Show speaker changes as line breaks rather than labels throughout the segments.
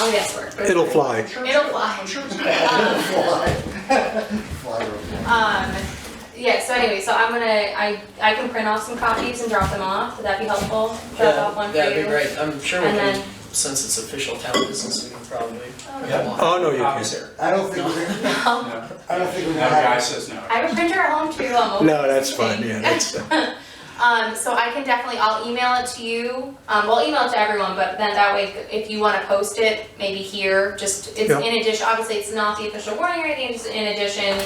all guesswork. but-
It'll fly.
It'll fly.
Sure it's gonna fly. Fly over there.
Um, yeah, so anyway, so I'm gonna, I, I can print off some copies and drop them off, would that be helpful? Drop off one for you?
That'd be great, I'm sure we
And
can,
then-
since it's official town business, we can probably.
Yeah.
Oh, no, you
Copies
can't.
there.
I don't think we're,
No,
No,
I don't think we're
the
gonna have.
guy says no.
I have a printer at home too, I'm always
No, that's fine,
using.
yeah, that's,
Um, so I can definitely, I'll email it to you, um, well, email it to everyone, but then that way, if you wanna post it, maybe here, just, it's
Yeah.
in addition, obviously, it's not the official warning or anything, just in addition,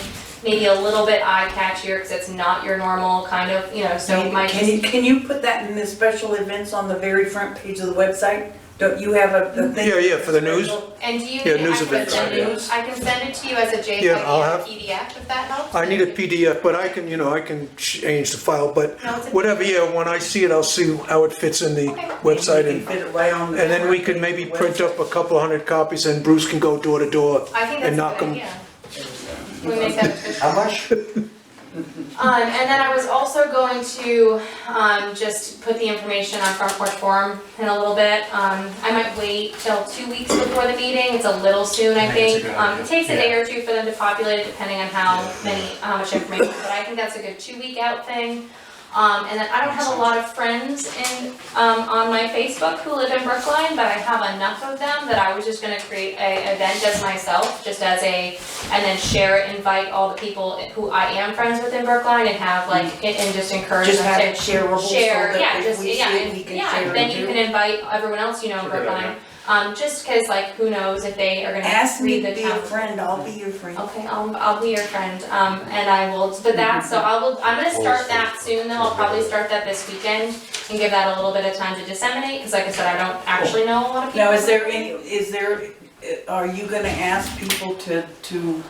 maybe a little bit eye catchier, cause it's not your normal kind of, you know, so it might
Can you,
just,
can you put that in the special events on the very front page of the website? Don't you have a, a thing?
Yeah, yeah, for the news.
and do you, I
Yeah, news
can
events,
send you,
yeah.
I can send it to you as a E JPEG
Yeah, I'll
or
have-
PDF, if that helps.
I need a PDF, but I can, you know, I can change the file, but
No, it's a-
whatever, yeah, when I see it, I'll see how it fits in the
Okay.
website
Maybe you
and,
can fit it right on the
and then we
front
could
page
maybe
of the
print up a couple hundred copies and Bruce can go door to door.
I think that's
and knock
a good
'em.
idea. We make that official.
How much?
Um, and then I was also going to, um, just put the information on Front Porch Forum in a little bit. Um, I might wait till two weeks before the meeting, it's a little soon, I
I think it's a
think.
good
Um,
idea.
it takes a day or two for them to populate it, depending on how many, how much information, but I think that's a good two-week out thing. Um, and then I don't have a lot of friends in, um, on my Facebook who live in Brookline, but I have enough of them that I was just gonna create a event as myself, just as a, and then share it, invite all the people who I am friends with in Brookline and have like, and and just encourage them
Mm-hmm. Just
to
have it shareable so
share, yeah,
that if
just,
we see
yeah,
it, we
and,
can
yeah,
share
and
it
then you
too.
can invite everyone else you know in
It's a good
Brookline.
idea.
Um, just cause like, who knows if they are gonna
Ask me
read the
to
town.
be a friend, I'll be your friend.
Okay, I'll, I'll be your friend, um, and I will, but that, so I will, I'm gonna start that soon though, I'll probably start that this weekend and give that a little bit of time to disseminate, cause like I said, I don't actually know a lot of people.
Now, is there any, is there, uh, are you gonna ask people to, to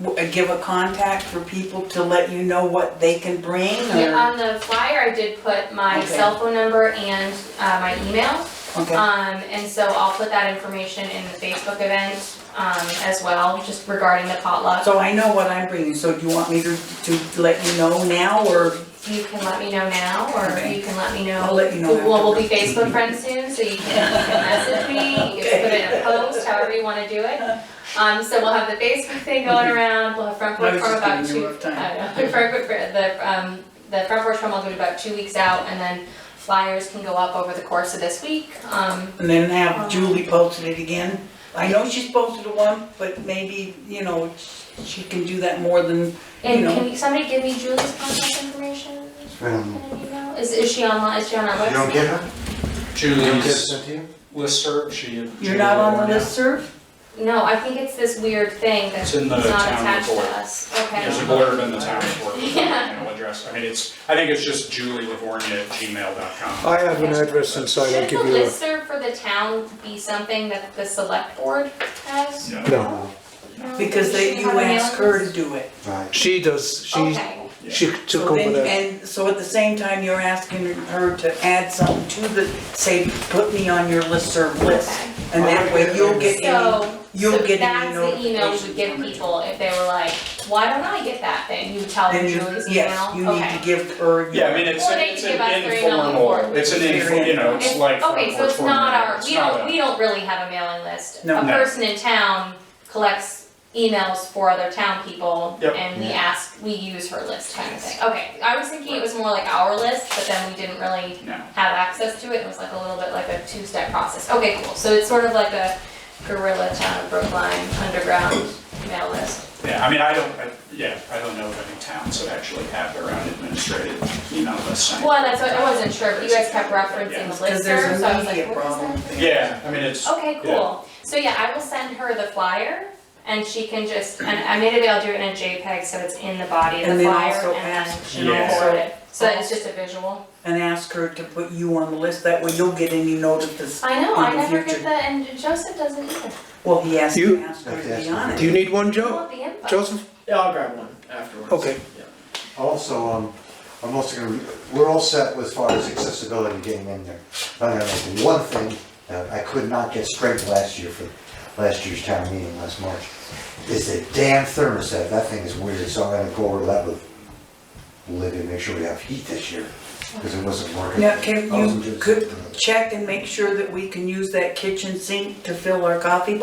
w- uh, give a contact for people to let you know what they can bring
Yeah,
or?
On the flyer, I did put my
Okay.
cell phone number and, uh, my email.
Okay,
Um, and so I'll put that information in the Facebook event, um, as well, just regarding the potluck.
so I know what I'm bringing, so do you want me to, to let you know now or?
You can let me know now, or
Okay.
you can let me know.
I'll let you know
Well, we'll be Facebook friends soon, so you can, you can message me, you can put it in a post, however you wanna do it. Um, so we'll have the Facebook thing going around, we'll have front
I
porch
was
forum
just
about
giving you
two.
a rough time.
I know, front porch, the, um, the front porch forum will do it about two weeks out, and then flyers can go up over the course of this week, um,
And then have Julie posted it again. I know she's posted a one, but maybe, you know, she can do that more than, you
And
know.
can you- somebody give me Julie's contact information in
Um,
an email? Is, is she online, is she on our
You don't
website?
get her? You don't get
Julie's
sent to you?
listserv, she.
You're not on the
Julia-
listserv?
No, I think it's this weird thing that's
It's in the
not
town
attached to
report.
us,
There's a
okay?
blurb in the town report, with the
Yeah.
email address, I mean, it's, I think it's just julielavornia@gmail.com.
Oh,
I have an address inside, I'll
Should the
give you a,
listserv for the town be something that the select board has?
No.
no.
No?
Because
Does
they,
she
you
have a
ask
mailing
her to
list?
do it.
Right.
She does, she,
Okay,
she
So
took over
then-
that.
And so at the same time, you're asking her to add something to the, say, put me on your listserv list.
okay.
And that way you'll get any,
So,
you'll
so
get any
that's the email we
notification
would give
from it.
people if they were like, why don't I get that thing? You would tell them
then you,
Julie's email,
yes, you need
okay.
to give her.
Yeah, I
your-
mean, it's,
Or they
it's
can give us
an
their email
informal,
before.
it's an info, you know, it's
It's-
like.
Okay, so
front
it's
porch
not
forum,
our,
it's
we
not
don't,
a-
we don't really have a mailing list.
No.
A
No.
person in town collects emails for other town people
Yep.
and we
Yeah.
ask, we use her list kind of thing. Okay, I was thinking it was more like our list, but then we didn't really
No.
have access to it. It was like a little bit like a two-step process. Okay, cool. So it's sort of like a guerrilla town of Brookline underground mail list.
Yeah, I mean, I don't, I- yeah, I don't know of any towns that actually have their own administrative email list. I-
Well, that's what, I wasn't sure, but you guys kept referencing the
Cause there's
listserv, so I
a
was
media
like, what is that?
problem.
Yeah, I mean, it's.
Okay,
yeah.
cool. So yeah, I will send her the flyer and she can just, and I maybe I'll do it in a JPEG so it's in the body of
And
the
then
flyer
also
and then
ask-
she can
Yeah.
forward it. So that it's just a visual.
and ask her to put you on the list, that way you'll get any notice.
I know, I
In the
never get
future.
that and Joseph doesn't either.
Well, he has
You-
to ask her to be on
Do you
it.
need one,
I
Joe?
want the info.
Joseph?
Yeah, I'll grab one afterwards.
Okay.
Yeah.
Also, um, I'm also gonna, we're all set as far as accessibility getting in there. I'm gonna make one thing that I could not get straight last year for, last year's town meeting last March, is that damn thermostat, that thing is weird, so I'm gonna go over that with Libby, and make sure we have heat this year, because it wasn't working.
Now, can
I wasn't
you
doing-
could check and make sure that we can use that kitchen sink to fill our coffee